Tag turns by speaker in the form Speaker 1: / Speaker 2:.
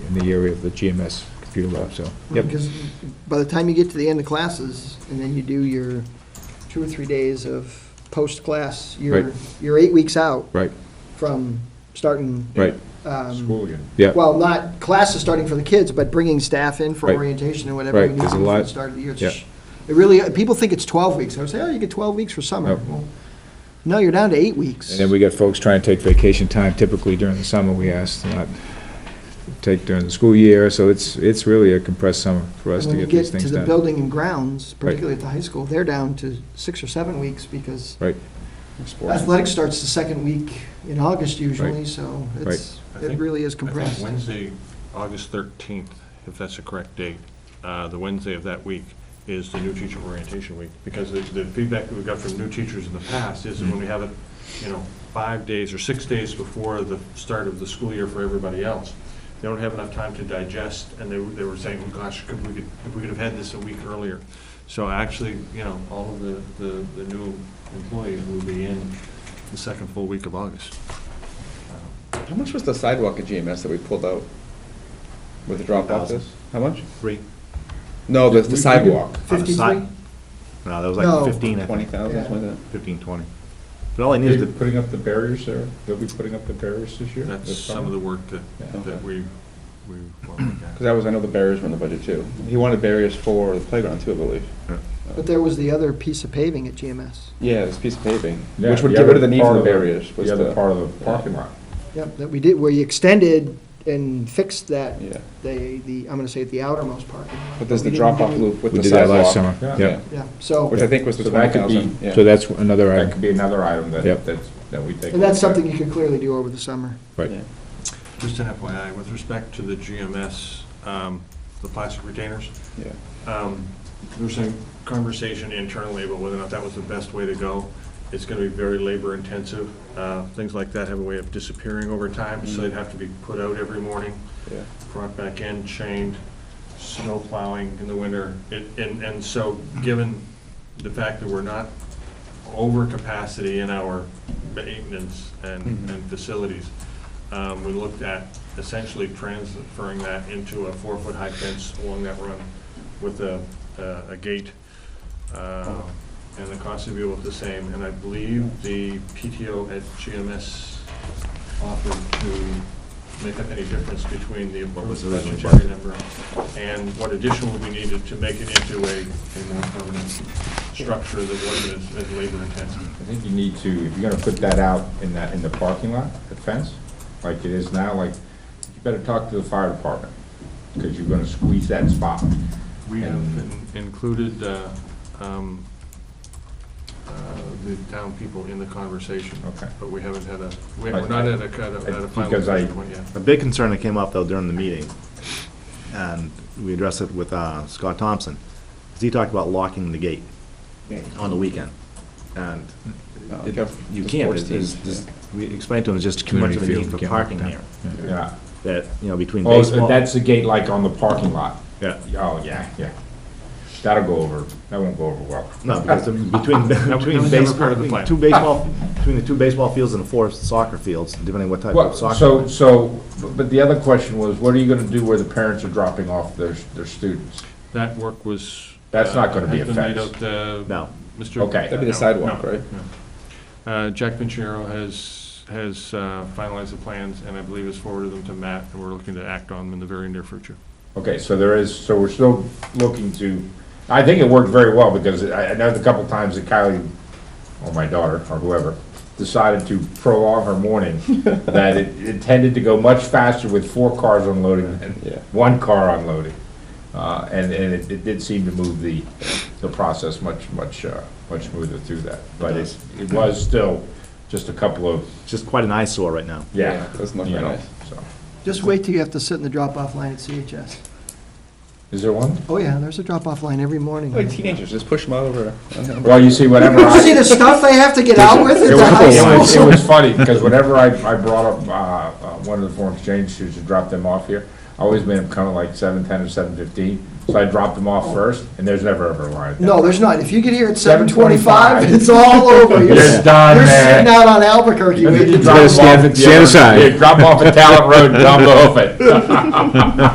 Speaker 1: in the area of the GMS computer lab, so, yep.
Speaker 2: Because by the time you get to the end of classes, and then you do your two or three days of post-class, you're,
Speaker 1: Right.
Speaker 2: you're eight weeks out
Speaker 1: Right,
Speaker 2: from starting.
Speaker 1: right,
Speaker 2: um,
Speaker 3: School again.
Speaker 1: yeah.
Speaker 2: Well, not classes starting for the kids, but bringing staff in for
Speaker 1: Right.
Speaker 2: orientation and whatever.
Speaker 1: Right,
Speaker 2: we need
Speaker 1: there's a
Speaker 2: to do for
Speaker 1: lot-
Speaker 2: the Start of the year. It's
Speaker 1: yeah.
Speaker 2: sh- It really, people think it's 12 weeks. I would say, oh, you get 12 weeks for summer.
Speaker 1: No.
Speaker 2: Well, No, you're down to eight weeks.
Speaker 1: And then we got folks trying to take vacation time typically during the summer, we ask to not take during the school year, so it's, it's really a compressed summer for us
Speaker 2: And
Speaker 1: to
Speaker 2: when you
Speaker 1: get these
Speaker 2: get to
Speaker 1: things
Speaker 2: the
Speaker 1: done.
Speaker 2: building and grounds, particularly at the high school, they're down to six or seven weeks because
Speaker 1: Right,
Speaker 3: Sports.
Speaker 2: athletics starts the second week in August usually,
Speaker 1: Right.
Speaker 2: so it's,
Speaker 3: I
Speaker 2: it
Speaker 3: think-
Speaker 2: really is
Speaker 3: I think
Speaker 2: compressed.
Speaker 3: Wednesday, August 13th, if that's the correct date, uh, the Wednesday of that week is the new teacher orientation week, because the- the feedback that we got from new teachers in the past is that when we have it, you know, five days or six days before the start of the school year for everybody else, they don't have enough time to digest, and they, were- they were saying, "Oh, gosh, could we, could- if we could have had this a week earlier. So actually, you know, all of the, the, the new employees will be in the second full week of August.
Speaker 4: How much was the sidewalk at GMS that we pulled out with the drop off this? How much?
Speaker 3: Three.
Speaker 4: No, the, the sidewalk,
Speaker 3: On the
Speaker 2: 53?
Speaker 3: side? No, that was
Speaker 2: No.
Speaker 3: like 15, I
Speaker 4: twenty
Speaker 3: think,
Speaker 4: thousand, something like
Speaker 3: 15, 20. But all I needed to.
Speaker 1: putting up the barriers there? They'll be putting up the barriers this year?
Speaker 3: That's some of the work that,
Speaker 1: Yeah.
Speaker 3: that we, we were
Speaker 4: that? Cause that was, I know the barriers were in the budget too. He wanted barriers for the playground too, I believe.
Speaker 2: But there was the other piece of paving at GMS.
Speaker 4: Yeah, this piece of paving, which would get rid of the need for the barriers, was
Speaker 1: The other
Speaker 4: the,
Speaker 1: part of the parking lot.
Speaker 2: Yep, that we did, where you extended and fixed that,
Speaker 4: yeah.
Speaker 2: the, the, I'm gonna say the outermost part.
Speaker 4: But there's
Speaker 2: We
Speaker 4: the
Speaker 2: didn't
Speaker 4: drop off
Speaker 2: do-
Speaker 4: loop with
Speaker 1: We
Speaker 4: the
Speaker 1: did that
Speaker 4: sidewalk.
Speaker 1: last summer,
Speaker 4: Yeah.
Speaker 1: yeah.
Speaker 2: Yeah, so,
Speaker 4: Which I think was the
Speaker 1: So that
Speaker 4: twenty
Speaker 1: could be,
Speaker 4: thousand, yeah.
Speaker 1: so that's another
Speaker 5: That
Speaker 1: item,
Speaker 5: could be another item that,
Speaker 1: Yep.
Speaker 5: that's- that we take.
Speaker 2: and that's something you could clearly do over the summer.
Speaker 1: right.
Speaker 4: Yeah.
Speaker 3: Just an FYI, uh, with respect to the GMS, um, the plastic retainers,
Speaker 4: Yeah.
Speaker 3: um, there was some conversation internally about whether or not that was the best way to go. It's gonna be very labor intensive. Uh, things like that have a way of disappearing over time, so they'd have to be put out every morning.
Speaker 4: Yeah.
Speaker 3: brought back in, chained, snow plowing in the winter. It- And, and so, given the fact that we're not over capacity in our maintenance and, and facilities, um, we looked at essentially transferring that into a four-foot-high fence along that run with a, a- a gate. uh, And the cost of view was the same, and I believe the PTO at GMS offered to make up any difference between the what was the budgetary number and what additional we needed to make it into a, a more permanent structure that wasn't as, as labor intensive.
Speaker 5: I think you need to, if you're gonna put that out in that, in the parking lot, the fence, like it is now, like, you better talk to the fire department, because you're gonna squeeze that spot.
Speaker 3: We have
Speaker 5: And-
Speaker 3: in- included, uh, um, uh, the town people in the conversation.
Speaker 5: Okay.
Speaker 3: But we haven't had a, we- we're not at a, kind of- at a final
Speaker 5: Because I-
Speaker 3: decision point yet.
Speaker 6: A big concern that came up, though, during the meeting, and we addressed it with uh, Scott Thompson, is he talked about locking the gate on the weekend. And
Speaker 4: No,
Speaker 6: it-
Speaker 4: okay.
Speaker 6: you
Speaker 4: The
Speaker 6: can't,
Speaker 4: sports
Speaker 6: it's, it's
Speaker 4: teams,
Speaker 6: just- we explained to him, it's just too much of a
Speaker 1: Community
Speaker 6: need for
Speaker 1: field,
Speaker 6: parking
Speaker 1: yeah.
Speaker 6: here,
Speaker 5: Yeah.
Speaker 6: that, you know, between
Speaker 5: Oh, so
Speaker 6: baseball.
Speaker 5: that's the gate like on the parking lot?
Speaker 6: Yeah.
Speaker 5: Oh, yeah, yeah. That'll go over, that won't go over well.
Speaker 6: No, because the- between, between
Speaker 3: was never part of the
Speaker 6: baseball,
Speaker 3: plan.
Speaker 6: two baseball, between the two baseball fields and the four soccer fields, depending what type
Speaker 5: Well,
Speaker 6: of
Speaker 5: so,
Speaker 6: soccer.
Speaker 5: so, but- but the other question was, what are you gonna do where the parents are dropping off their, their students?
Speaker 3: That work was.
Speaker 5: That's not gonna
Speaker 3: uh,
Speaker 5: be
Speaker 3: has
Speaker 5: a
Speaker 3: been laid
Speaker 5: fence.
Speaker 3: out, uh,
Speaker 6: No.
Speaker 3: Mr.
Speaker 5: Okay.
Speaker 4: That'd be the sidewalk,
Speaker 3: No,
Speaker 4: right?
Speaker 3: Uh, Jack Pinchero has, has uh, finalized the plans, and I believe has forwarded them to Matt, and we're looking to act on them in the very near future.
Speaker 5: Okay, so there is, so we're still looking to, I think it worked very well, because I, I know the couple times that Kylie, or my daughter, or whoever, decided to prolong her morning, that it, it tended to go much faster with four cars unloading than
Speaker 4: Yeah.
Speaker 5: one car unloading. Uh, and, and it, it did seem to move the, the process much, much, uh, much smoother through that. But it's, it was still just a couple of,
Speaker 6: It's just quite an eyesore right now.
Speaker 5: yeah,
Speaker 4: Doesn't
Speaker 5: you
Speaker 4: look very
Speaker 5: know,
Speaker 4: nice.
Speaker 5: so.
Speaker 2: Just wait till you have to sit in the drop-off line at CHS.
Speaker 5: Is there one?
Speaker 2: Oh, yeah, there's a drop-off line every morning.
Speaker 4: Like teenagers, just push them out over.
Speaker 5: Well, you see, whenever I.
Speaker 2: You see the stuff they have to get out with
Speaker 5: It
Speaker 2: at the
Speaker 5: was, it
Speaker 2: high
Speaker 5: was,
Speaker 2: school?
Speaker 5: it was funny, because whenever I, I brought up, uh, uh, one of the foreign exchange students to drop them off here, I always made them come at like seven ten or seven fifteen, so I dropped them off first, and there's never ever a line.
Speaker 2: No, there's not. If you get here at seven
Speaker 5: 7:25,
Speaker 2: twenty-five, it's all over. You're
Speaker 5: You're done,
Speaker 2: You're
Speaker 5: man.
Speaker 2: sitting out on Albuquerque
Speaker 5: You
Speaker 2: waiting.
Speaker 5: drop 'em
Speaker 1: stand-
Speaker 5: off-
Speaker 1: stand aside.
Speaker 5: Yeah, drop off at Talent Road, dump off it.